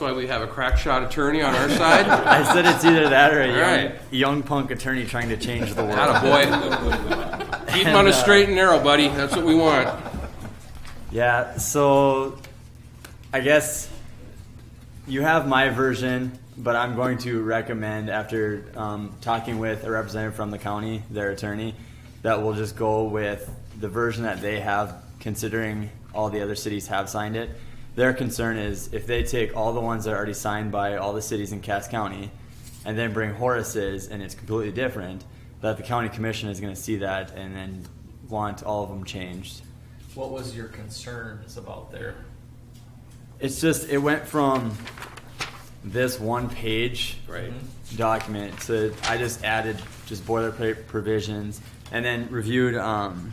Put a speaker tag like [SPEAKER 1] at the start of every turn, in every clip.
[SPEAKER 1] why we have a crack shot attorney on our side.
[SPEAKER 2] I said it's either that or a young,
[SPEAKER 1] Right.
[SPEAKER 2] young punk attorney trying to change the world.
[SPEAKER 1] Not a boy. Keep him on
[SPEAKER 2] uh,
[SPEAKER 1] a straight and narrow, buddy. That's what we want.
[SPEAKER 2] Yeah, so I guess you have my version, but I'm going to recommend, after um, talking with a representative from the county, their attorney, that we'll just go with the version that they have, considering all the other cities have signed it. Their concern is if they take all the ones that are already signed by all the cities in Cass County and then bring Horace's and it's completely different, that the county commission is going to see that and then want all of them changed.
[SPEAKER 3] What was your concerns about there?
[SPEAKER 2] It's just it went from this one page document to I just added just boilerplate provisions and then reviewed um,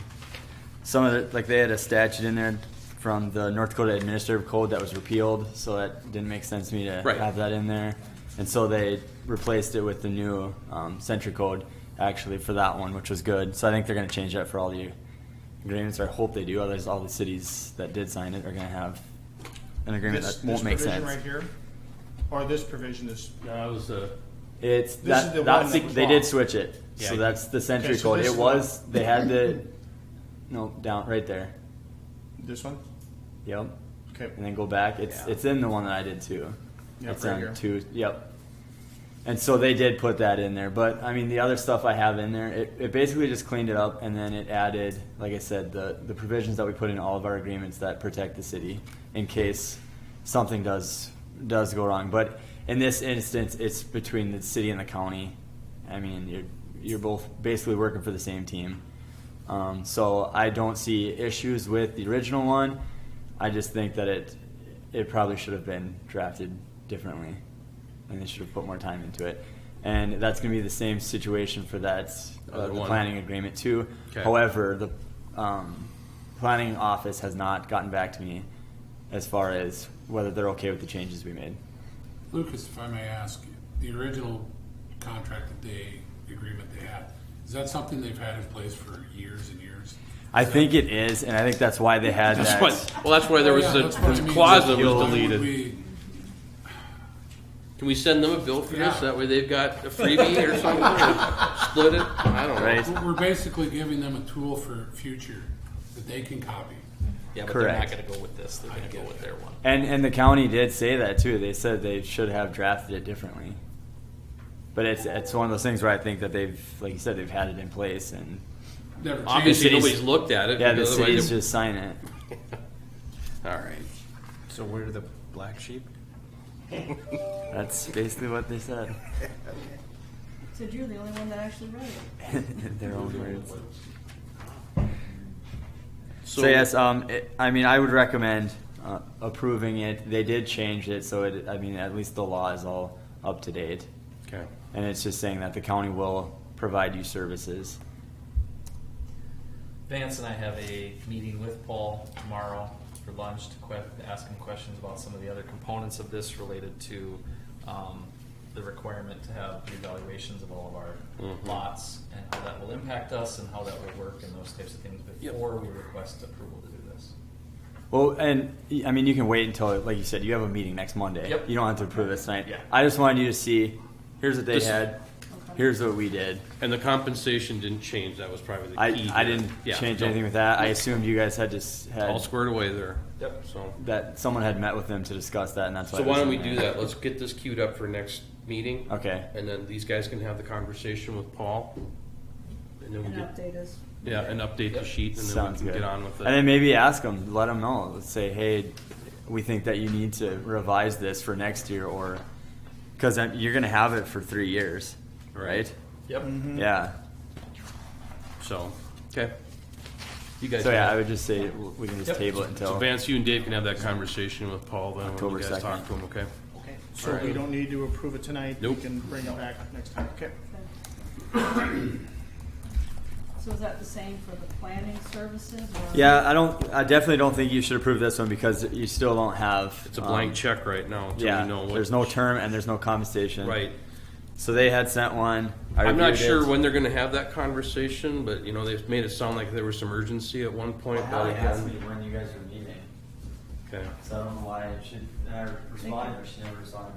[SPEAKER 2] some of the like they had a statute in there from the North Dakota Administrative Code that was repealed, so that didn't make sense to me to
[SPEAKER 1] Right.
[SPEAKER 2] have that in there, and so they replaced it with the new um, Century Code actually for that one, which was good. So I think they're going to change that for all the agreements. Or I hope they do. Otherwise, all the cities that did sign it are going to have an agreement
[SPEAKER 4] This,
[SPEAKER 2] that won't
[SPEAKER 4] this
[SPEAKER 2] make
[SPEAKER 4] provision
[SPEAKER 2] sense.
[SPEAKER 4] right here, or this provision is,
[SPEAKER 5] That was the,
[SPEAKER 2] It's
[SPEAKER 4] This
[SPEAKER 2] that,
[SPEAKER 4] is the
[SPEAKER 2] that's
[SPEAKER 4] one
[SPEAKER 2] the,
[SPEAKER 4] that was
[SPEAKER 2] they
[SPEAKER 4] wrong.
[SPEAKER 2] did switch it.
[SPEAKER 5] Yeah,
[SPEAKER 2] so
[SPEAKER 5] you-
[SPEAKER 2] that's the century
[SPEAKER 4] Okay, so
[SPEAKER 2] code.
[SPEAKER 4] this
[SPEAKER 2] It
[SPEAKER 4] is
[SPEAKER 2] was they had the no down right there.
[SPEAKER 4] this one?
[SPEAKER 2] Yep.
[SPEAKER 4] Okay.
[SPEAKER 2] And then go back. It's
[SPEAKER 4] Yeah.
[SPEAKER 2] it's in the one that I did too.
[SPEAKER 4] Yep,
[SPEAKER 2] it's
[SPEAKER 4] right
[SPEAKER 2] on
[SPEAKER 4] here.
[SPEAKER 2] two. Yep. And so they did put that in there, but I mean the other stuff I have in there, it, it basically just cleaned it up, and then it added, like I said, the the provisions that we put in all of our agreements that protect the city in case something does does go wrong. But in this instance, it's between the city and the county. I mean, you're you're both basically working for the same team. Um, so I don't see issues with the original one. I just think that it it probably should have been drafted differently, and they should have put more time into it. And that's going to be the same situation for that uh,
[SPEAKER 1] Other
[SPEAKER 2] the
[SPEAKER 1] one.
[SPEAKER 2] planning agreement too.
[SPEAKER 1] Okay.
[SPEAKER 2] However, the um, planning office has not gotten back to me as far as whether they're okay with the changes we made.
[SPEAKER 6] Lucas, if I may ask, the original contract that they, the agreement they had, is that something they've had in place for years and years?
[SPEAKER 2] I
[SPEAKER 6] Is that-
[SPEAKER 2] think it is, and I think that's why they had that.
[SPEAKER 1] well, that's why there was
[SPEAKER 6] Yeah,
[SPEAKER 1] a
[SPEAKER 6] that's what I
[SPEAKER 1] the
[SPEAKER 6] mean.
[SPEAKER 1] clause that
[SPEAKER 6] Why
[SPEAKER 1] was
[SPEAKER 6] would
[SPEAKER 1] deleted.
[SPEAKER 6] we-
[SPEAKER 1] Can we send them a bill for this?
[SPEAKER 6] Yeah.
[SPEAKER 1] That way they've got a freebie or something. or split it. I don't know.
[SPEAKER 2] Right.
[SPEAKER 6] We're basically giving them a tool for future that they can copy.
[SPEAKER 3] Yeah, but
[SPEAKER 2] Correct.
[SPEAKER 3] they're not going to go with this. They're going to go with their one.
[SPEAKER 2] And and the county did say that too. They said they should have drafted it differently. But it's it's one of those things where I think that they've, like you said, they've had it in place, and
[SPEAKER 6] Never changed.
[SPEAKER 1] Obviously,
[SPEAKER 2] cities-
[SPEAKER 1] nobody's looked at it.
[SPEAKER 2] yeah, the
[SPEAKER 1] because otherwise
[SPEAKER 2] cities
[SPEAKER 1] they-
[SPEAKER 2] just sign it.
[SPEAKER 1] All right.
[SPEAKER 3] So we're the black sheep?
[SPEAKER 2] That's basically what they said.
[SPEAKER 7] Said you're the only one that actually read it.
[SPEAKER 2] In Their own words.
[SPEAKER 1] So,
[SPEAKER 2] So, yes, um, it, I mean, I would recommend uh, approving it. They did change it, so it, I mean, at least the law is all up to date,
[SPEAKER 1] Okay.
[SPEAKER 2] and it's just saying that the county will provide you services.
[SPEAKER 3] Vance and I have a meeting with Paul tomorrow for lunch to que- to ask him questions about some of the other components of this related to um, the requirement to have the evaluations of all of our
[SPEAKER 1] Mhm.
[SPEAKER 3] lots and how that will impact us and how that will work and those types of things
[SPEAKER 1] Yep.
[SPEAKER 3] before we request approval to do this.
[SPEAKER 2] Well, and y- I mean, you can wait until, like you said, you have a meeting next Monday.
[SPEAKER 3] Yep.
[SPEAKER 2] You don't have to approve this tonight.
[SPEAKER 3] Yeah.
[SPEAKER 2] I just wanted you to see, here's what they
[SPEAKER 1] This-
[SPEAKER 2] had, here's what we did.
[SPEAKER 1] And the compensation didn't change. That was probably the
[SPEAKER 2] I,
[SPEAKER 1] key.
[SPEAKER 2] I
[SPEAKER 1] here.
[SPEAKER 2] didn't
[SPEAKER 1] Yeah,
[SPEAKER 2] change
[SPEAKER 1] no.
[SPEAKER 2] anything with that. I assumed you guys had just
[SPEAKER 1] All
[SPEAKER 2] had,
[SPEAKER 1] squared away there.
[SPEAKER 3] Yep.
[SPEAKER 1] So.
[SPEAKER 2] that someone had met with them to discuss that, and that's why.
[SPEAKER 1] So
[SPEAKER 2] it
[SPEAKER 1] why
[SPEAKER 2] was
[SPEAKER 1] don't we
[SPEAKER 2] in
[SPEAKER 1] do
[SPEAKER 2] there.
[SPEAKER 1] that? Let's get this queued up for next meeting.
[SPEAKER 2] Okay.
[SPEAKER 1] And then these guys can have the conversation with Paul. And then we
[SPEAKER 7] And
[SPEAKER 1] get,
[SPEAKER 7] update us.
[SPEAKER 1] yeah, and update the sheet and then we
[SPEAKER 2] Sounds
[SPEAKER 1] can
[SPEAKER 2] good.
[SPEAKER 1] get on with
[SPEAKER 2] And then
[SPEAKER 1] it.
[SPEAKER 2] maybe ask them, let them know. Let's say, hey, we think that you need to revise this for next year, or, because you're going to have it for three years, right?
[SPEAKER 3] Yep.
[SPEAKER 2] Yeah.
[SPEAKER 1] So, okay. You guys.
[SPEAKER 2] So yeah,
[SPEAKER 1] have-
[SPEAKER 2] I would just say w- we can just
[SPEAKER 3] Yep.
[SPEAKER 2] table it
[SPEAKER 1] So
[SPEAKER 2] until.
[SPEAKER 1] Vance, you and Dave can have that conversation with Paul then when you
[SPEAKER 2] October
[SPEAKER 1] guys
[SPEAKER 2] 2nd.
[SPEAKER 1] talk to him, okay?
[SPEAKER 4] Okay. So
[SPEAKER 1] All
[SPEAKER 4] we
[SPEAKER 1] right.
[SPEAKER 4] don't need to approve it tonight?
[SPEAKER 1] Nope.
[SPEAKER 4] We can bring it back next time, okay?
[SPEAKER 7] So is that the same for the planning services or?
[SPEAKER 2] Yeah, I don't. I definitely don't think you should approve this one because you still don't have.
[SPEAKER 1] It's a blank
[SPEAKER 2] um,
[SPEAKER 1] check right now until
[SPEAKER 2] yeah,
[SPEAKER 1] we know what.
[SPEAKER 2] there's no term and there's no compensation.
[SPEAKER 1] Right.
[SPEAKER 2] So they had sent one. I
[SPEAKER 1] I'm not
[SPEAKER 2] reviewed it.
[SPEAKER 1] sure when they're gonna have that conversation, but you know, they've made it sound like there was some urgency at one point, but
[SPEAKER 2] Allie asked me
[SPEAKER 1] again.
[SPEAKER 2] when you guys were meeting,
[SPEAKER 1] Okay.
[SPEAKER 2] so I don't know why it should. and I responded, but she never responded back.